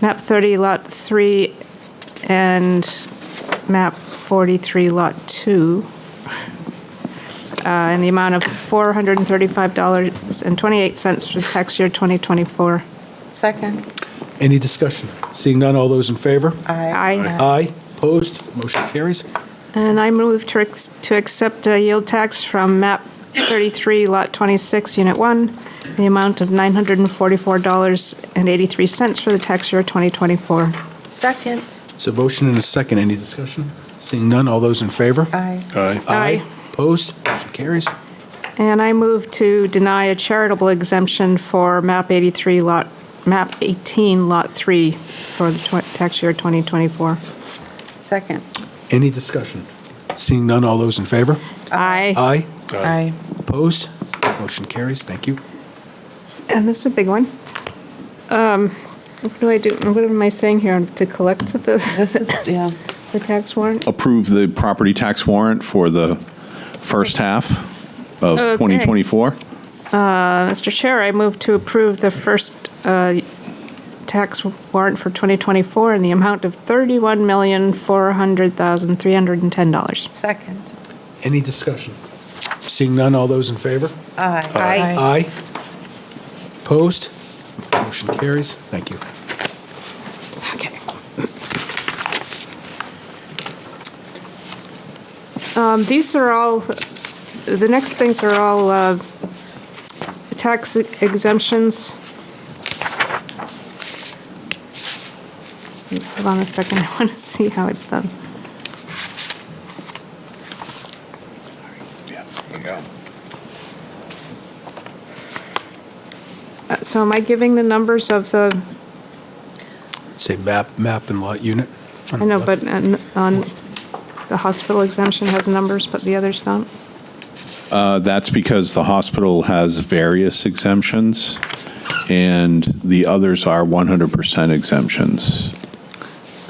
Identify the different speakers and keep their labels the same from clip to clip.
Speaker 1: map 30, lot 3, and map 43, lot 2, uh, in the amount of $435.28 for tax year 2024.
Speaker 2: Second.
Speaker 3: Any discussion? Seeing none, all those in favor?
Speaker 2: Aye.
Speaker 1: Aye.
Speaker 3: Aye. Opposed? Motion carries.
Speaker 1: And I move to ex- to accept a yield tax from map 33, lot 26, unit 1, in the amount of $944.83 for the tax year 2024.
Speaker 2: Second.
Speaker 3: So motion and a second. Any discussion? Seeing none, all those in favor?
Speaker 2: Aye.
Speaker 4: Aye.
Speaker 1: Aye.
Speaker 3: Opposed? Motion carries.
Speaker 1: And I move to deny a charitable exemption for MAP 83 lot, MAP 18 lot 3 for the tw- tax year 2024.
Speaker 2: Second.
Speaker 3: Any discussion? Seeing none, all those in favor?
Speaker 2: Uh,
Speaker 1: Aye.
Speaker 3: Aye.
Speaker 4: Aye.
Speaker 3: Opposed? Motion carries. Thank you.
Speaker 1: And this is a big one. Um, What do I do, what am I saying here, to collect the,
Speaker 2: This is, yeah.
Speaker 1: the tax warrant? Uh,
Speaker 5: approve the property tax warrant for the first half of
Speaker 1: Okay.
Speaker 5: 2024.
Speaker 1: Uh, Mr. Chair, I move to approve the first uh, tax warrant for 2024 in the amount of $31,400,310.
Speaker 2: Second.
Speaker 3: Any discussion? Seeing none, all those in favor?
Speaker 2: Aye.
Speaker 4: Aye.
Speaker 3: Aye. Opposed? Motion carries. Thank you.
Speaker 1: Okay. Um, These are all, the next things are all uh, tax e-, exemptions. Hold on a second, I want to see how it's done. Uh, So am I giving the numbers of the,
Speaker 3: Say map, map and lot unit.
Speaker 1: I know, but uh, on, the hospital exemption has numbers, but the others don't?
Speaker 5: Uh, That's because the hospital has various exemptions, and the others are 100% exemptions.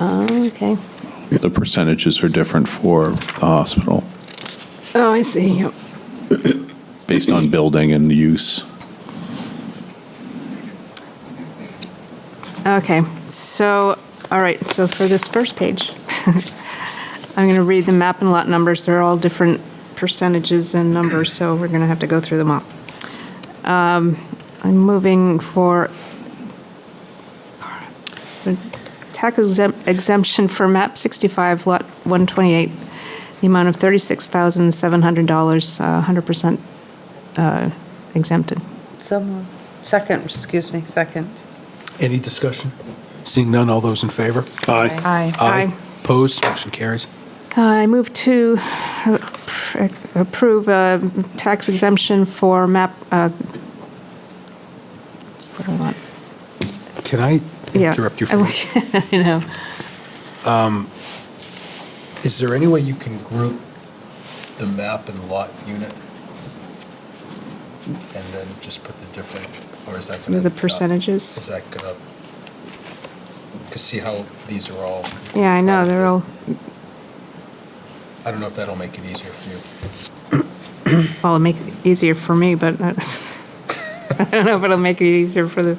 Speaker 1: Oh, okay.
Speaker 5: The percentages are different for the hospital,
Speaker 1: Oh, I see. Yep.
Speaker 5: based on building and use.
Speaker 1: Okay, so, all right, so for this first page, I'm going to read the map and lot numbers. They're all different percentages and numbers, so we're going to have to go through them all. Um, I'm moving for the tax exempt- exemption for MAP 65, Lot 128, the amount of $36,700, uh, 100% uh, exempted.
Speaker 2: So moved. Second, excuse me, second.
Speaker 3: Any discussion? Seeing none, all those in favor?
Speaker 2: Aye.
Speaker 4: Aye.
Speaker 1: Aye.
Speaker 3: Opposed? Motion carries.
Speaker 1: Uh, I move to approve a tax exemption for map, uh, what do I want?
Speaker 3: Can I
Speaker 1: Yeah.
Speaker 3: interrupt you for a minute?
Speaker 1: I know.
Speaker 3: Is there any way you can group the map and lot unit? And then just put the different, or is that gonna?
Speaker 1: The percentages?
Speaker 3: Is that gonna? Cause see how these are all.
Speaker 1: Yeah, I know, they're all,
Speaker 3: I don't know if that'll make it easier for you.
Speaker 1: well, it'll make it easier for me, but not- I don't know if it'll make it easier for the,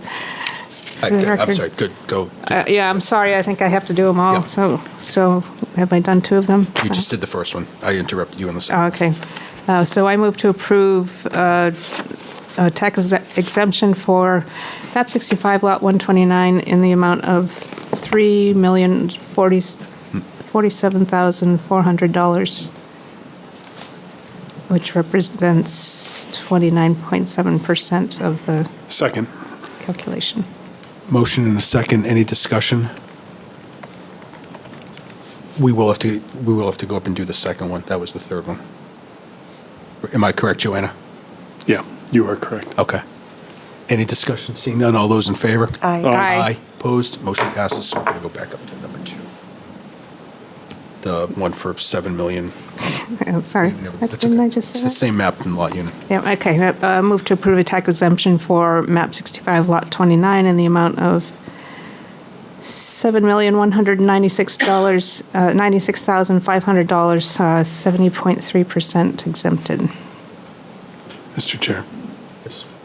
Speaker 3: I-
Speaker 1: the
Speaker 3: I'm
Speaker 1: record.
Speaker 3: sorry, good, go.
Speaker 1: Uh, yeah, I'm sorry, I think I have to do them all,
Speaker 3: Yeah.
Speaker 1: so, so have I done two of them?
Speaker 3: You just did the first one. I interrupted you on the
Speaker 1: Oh,
Speaker 3: second.
Speaker 1: Okay. Uh, So I move to approve uh, a tax exe- exemption for map 65, lot 129, in the amount of $3,047,400, which represents 29.7% of the
Speaker 4: Second.
Speaker 1: calculation.
Speaker 3: Motion and a second, any discussion? We will have to, we will have to go up and do the second one. That was the third one. Am I correct, Joanna?
Speaker 4: Yeah, you are correct.
Speaker 3: Okay. Any discussion? Seeing none, all those in favor?
Speaker 2: Aye.
Speaker 1: Aye.
Speaker 3: Opposed? Motion passes. So we're going to go back up to number two. The one for 7 million.
Speaker 1: Oh, Sorry,
Speaker 3: Never- that's
Speaker 1: didn't
Speaker 3: okay.
Speaker 1: I just say
Speaker 3: It's
Speaker 1: that?
Speaker 3: the same map and lot unit.
Speaker 1: Yeah, okay. Uh, Move to approve a tax exemption for map 65, lot 29, in the amount of $7,196, uh, $96,500, uh, 70.3% exempted.
Speaker 4: Mr. Chair,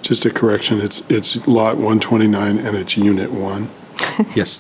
Speaker 4: just a correction. It's, it's lot 129 and it's unit one.
Speaker 3: Yes,